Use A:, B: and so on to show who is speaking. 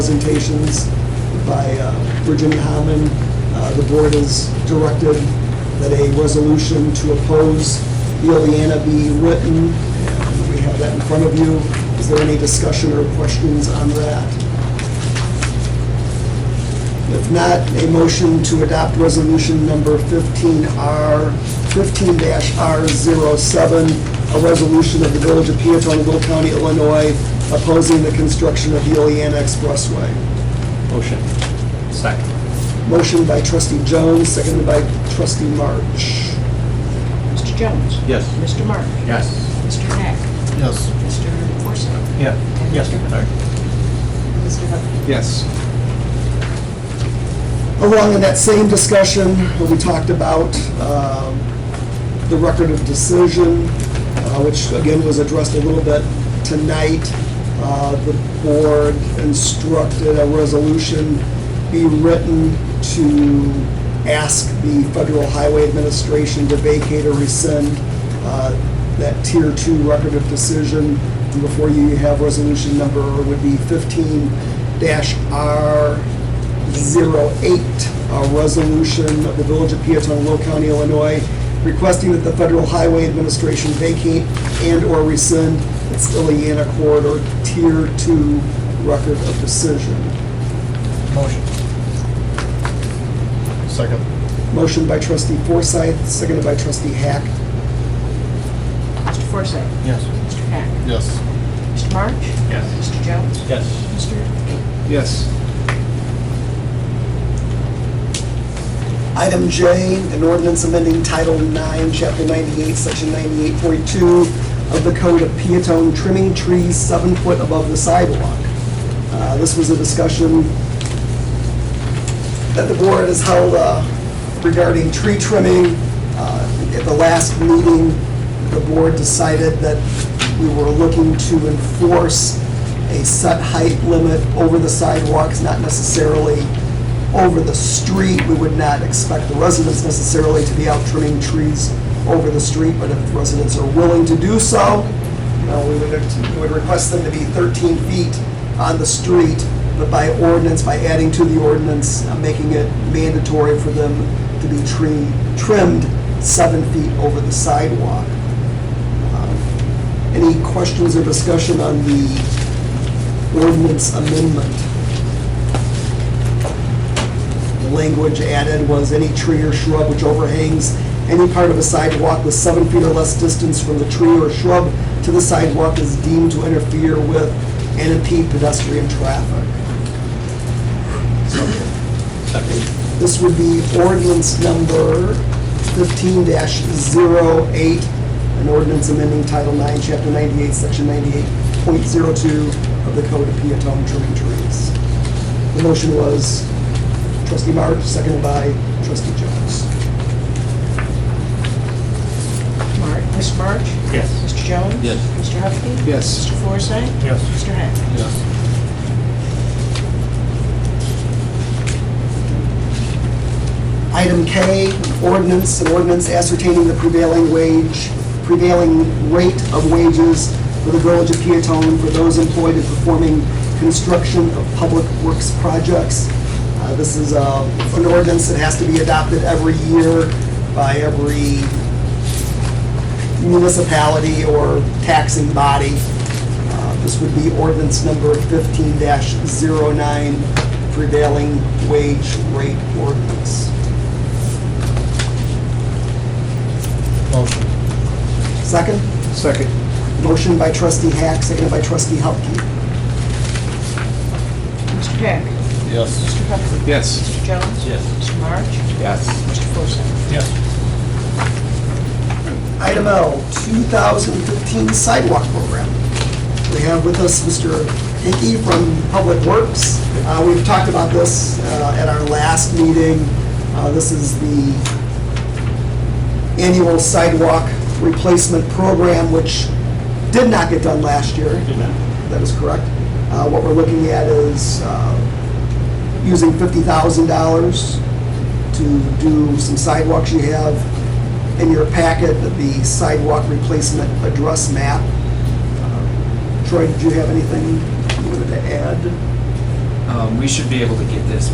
A: presentations by uh, Virginia Hammond. Uh, The board has directed that a resolution to oppose Ileana be written, and we have that in front of you. Is there any discussion or questions on that? If not, a motion to adopt resolution number 15R, 15-R07, a resolution of the Village of Peatonville County, Illinois, opposing the construction of the Oleana Expressway.
B: Motion. Second.
A: Motion by trustee Jones, seconded by trustee March.
C: Mr. Jones?
B: Yes.
C: Mr. March?
B: Yes.
C: Mr. Hack?
B: Yes.
C: Mr. Forsythe?
B: Yeah. Yes.
C: Mr. Hubkey?
B: Yes.
A: Along in that same discussion, we talked about um, the record of decision, uh, which again was addressed a little bit tonight. Uh, The board instructed a resolution be written to ask the Federal Highway Administration to vacate or rescind uh, that Tier 2 record of decision. And Before you you have resolution number would be 15-R 08, a resolution of the Village of Peatone, Will County, Illinois, requesting that the Federal Highway Administration vacate and/or rescind its Ileana Corridor Tier 2 Record of Decision.
B: Motion. Second.
A: Motion by trustee Forsythe, seconded by trustee Hack.
C: Mr. Forsythe?
B: Yes.
C: Mr. Hack?
B: Yes.
C: Mr. March?
B: Yes.
C: Mr. Jones?
B: Yes.
C: Mr. Hubkey?
B: Yes.
A: Item J, an ordinance amending Title 9, Chapter 98, Section 98.42 of the Code of Peatone, trimming trees seven foot above the sidewalk. Uh, This was a discussion that the board has held uh, regarding tree trimming. Uh, At the last meeting, the board decided that we were looking to enforce a set height limit over the sidewalks, not necessarily over the street. We would not expect the residents necessarily to be out trimming trees over the street, but if residents are willing to do so, you know, we would, we would request them to be 13 feet on the street, but by ordinance, by adding to the ordinance, uh, making it mandatory for them to be tree, trimmed seven feet over the sidewalk. Um, Any questions or discussion on the ordinance amendment? The Language added was any tree or shrub which overhangs any part of a sidewalk with seven feet or less distance from the tree or shrub to the sidewalk is deemed to interfere with and impede pedestrian traffic.
B: Second.
A: This would be ordinance number fifteen 8 an ordinance amending Title Nine, Chapter ninety-eight, Section ninety-eight point zero-two of the Code of Peatone Trimming Trees. The motion was trustee March, seconded by trustee Jones.
C: March? Mr. March?
B: Yes.
C: Mr. Jones?
B: Yes.
C: Mr. Hubkey?
A: Yes.
C: Mr. Forsythe?
B: Yes.
C: Mr. Hack?
B: Yes.
A: Item K, ordinance, an ordinance ascertaining the prevailing wage, prevailing rate of wages for the Village of Peatone for those employed in performing construction of public works projects. Uh, This is uh, an ordinance that has to be adopted every year by every municipality or taxing body. Uh, This would be ordinance number 15-09, prevailing wage rate ordinance.
B: Motion.
A: Second,
B: Second.
A: motion by trustee Hack, seconded by trustee Hupkey.
C: Mr. Hack?
B: Yes.
C: Mr. Hubkey?
B: Yes.
C: Mr. Jones?
B: Yes.
C: Mr. March?
B: Yes.
C: Mr. Forsythe?
B: Yes.
A: Item L, 2015 sidewalk program. We have with us Mr. Hickey from Public Works. Uh, We've talked about this uh, at our last meeting. Uh, This is the annual sidewalk replacement program, which did not get done last year.
B: Did not.
A: That is correct. Uh, What we're looking at is uh, using $50,000 to do some sidewalks. You have in your packet the sidewalk replacement address map. Uh, Troy, did you have anything you wanted to add?
D: um, we should be able to get this